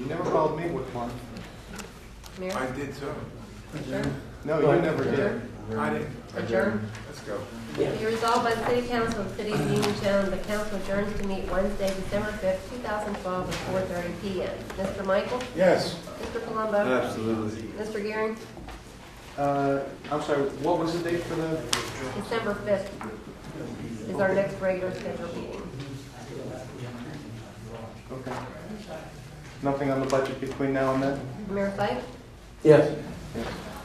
You never called me with one. Mayor, I did too. adjourn, No, you never did. I did. adjourn. Let's go. Be resolved by the City Council of the City of Uniontown, the council adjourns to meet Wednesday, December fifth, two thousand twelve, at four thirty P M. Mr. Michael? Yes. Mr. Palumbo? Absolutely. Mr. Gearing? Uh, I'm sorry, what was the date for the, December fifth is our next regular scheduled meeting. okay. Nothing on the budget between now and then? Mayor Sike? Yes. Yeah.